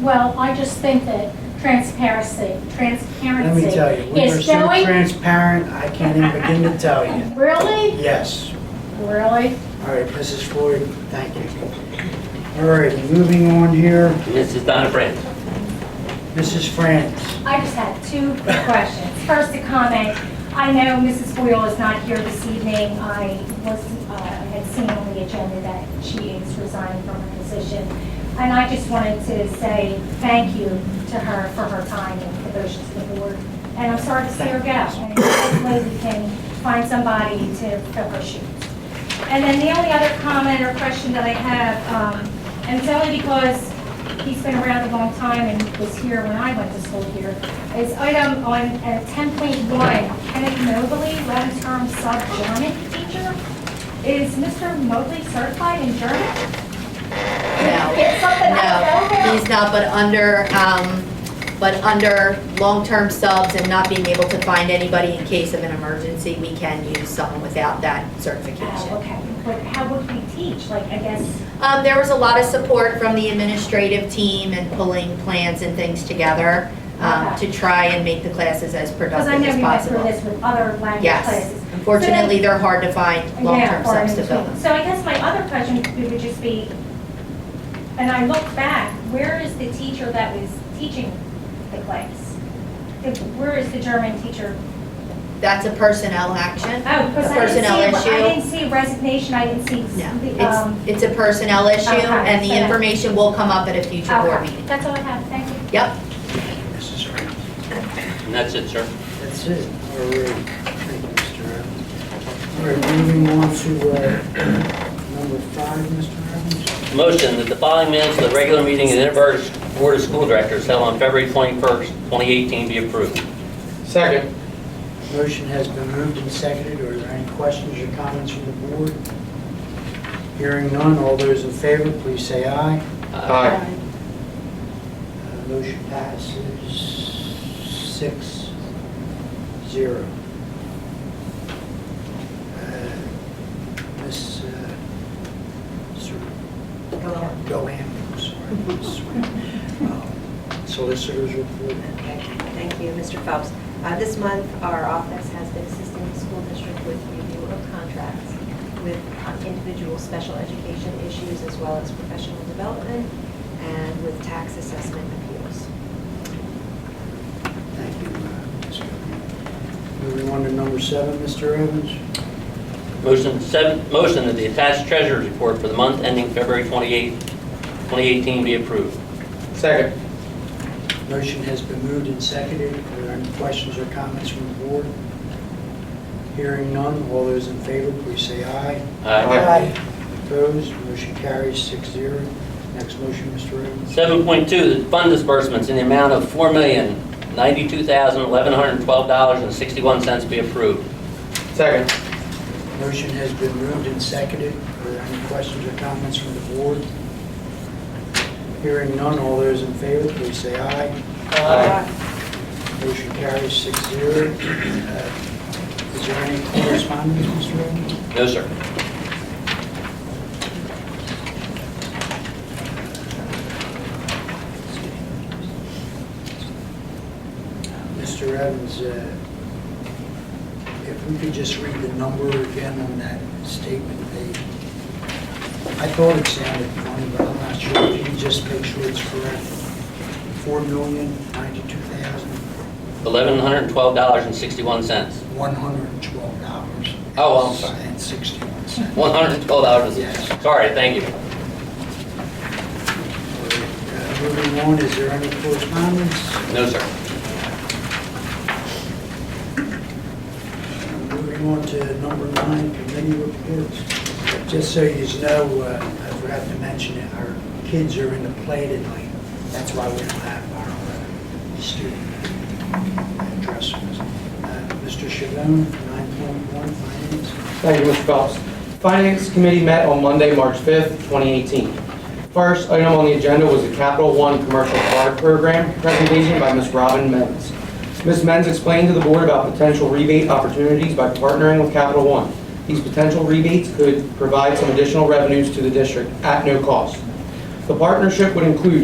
Well, I just think that transparency, Let me transparency tell you, we were is so going. transparent, I can't even begin to tell you. Really? Yes. Really? All right, Mrs. Floyd, thank you. All right, moving on here, This is Donna Brandt. Mrs. Franz. I just had two quick questions. First, a comment. I know Mrs. Boyle is not here this evening. I was, uh, had seen on the agenda that she is resigning from her position. And I just wanted to say thank you to her for her time and devotion to the board. And I'm sorry to see her go. And hopefully we can find somebody to fill her shoes. And then the only other comment or question that I have, um, and it's only because he's been around a long time and was here when I went to school here, is item on uh, ten point one, Kenneth Mobley, long-term sub-German teacher. Is Mr. Mobley certified in German? It's something I don't No, know. he's not, but under, um, but under long-term subs and not being able to find anybody in case of an emergency, we can use someone without that Oh, certification. okay, but how would we teach? Like, I guess, Um, there was a lot of support from the administrative team and pulling plans and things together, um, Okay. to try and make the classes as because I productive know as we went through possible. this with other language Yes, classes. unfortunately, they're hard to find Yeah, long-term or in subs to fill between. them. So I guess my other question would just be, and I look back, where is the teacher that was teaching the class? If- Where is the German teacher? That's a personnel action. Oh, because The I didn't personnel see, I issue? didn't see resignation, I didn't see No, the, um, it's, it's a personnel issue, Okay, and the so- information will come up at a future board okay. meeting. That's all I have, thank you. Yep, Mrs. Franz. And that's it, sir. That's it. All right, thank you, Mr. Evans. All right, moving on to uh, number five, Mr. Evans. Motion that the following minutes of the regular meeting of the Inverse Board of School Directors held on February 21st, 2018 be approved. Second. Motion has been moved and seconded. Are there any questions or comments from the board? Hearing none, all those in favor, please say aye. Aye. Uh, Motion passes six, zero. Uh, Ms. uh, Sir- Gohan, I'm sorry, Ms. Swain. Um, Solicitors report. Okay, Thank you, Mr. Phelps. Uh, This month, our office has been assisting the school district with review of contracts with um, individual special education issues as well as professional development and with tax assessment appeals. Thank you, uh, Ms. Gohan. Moving on to number seven, Mr. Evans. Motion seven, motion that the attached treasurer's report for the month ending February 28th, 2018 be approved. Second. Motion has been moved and seconded. Are there any questions or comments from the board? Hearing none, all those in favor, please say aye. Aye. Opposed, motion carries six zero. Next motion, Mr. Evans. 7.2, that fund disbursements in the amount of $4,092,112.61 be approved. Second. Motion has been moved and seconded. Are there any questions or comments from the board? Hearing none, all those in favor, please say aye. Motion carries six zero. Uh, Is there any correspondence, Mr. Evans? No, sir. Mr. Evans, uh, if we could just read the number again on that statement, they, I thought it sounded funny, but I'm not sure. Can you just make sure it's correct? Four million ninety-two thousand $1,112.61. one hundred and twelve dollars. Oh, I'm sorry. And sixty-one cents. $112. Sorry, thank you. Uh, Moving on, is there any correspondence? No, sir. Moving on to number nine, committee reports. Just so you know, uh, I forgot to mention it, our kids are in the play tonight. That's why we don't have our uh, student addresses. Uh, Mr. Chabon, 9.1 finance. Thank you, Mr. Phelps. Finance Committee met on Monday, March 5th, 2018. First item on the agenda was the Capital One Commercial Card Program presentation by Ms. Robin Menz. Ms. Menz explained to the board about potential rebate opportunities by partnering with Capital One. These potential rebates could provide some additional revenues to the district at no cost. The partnership would include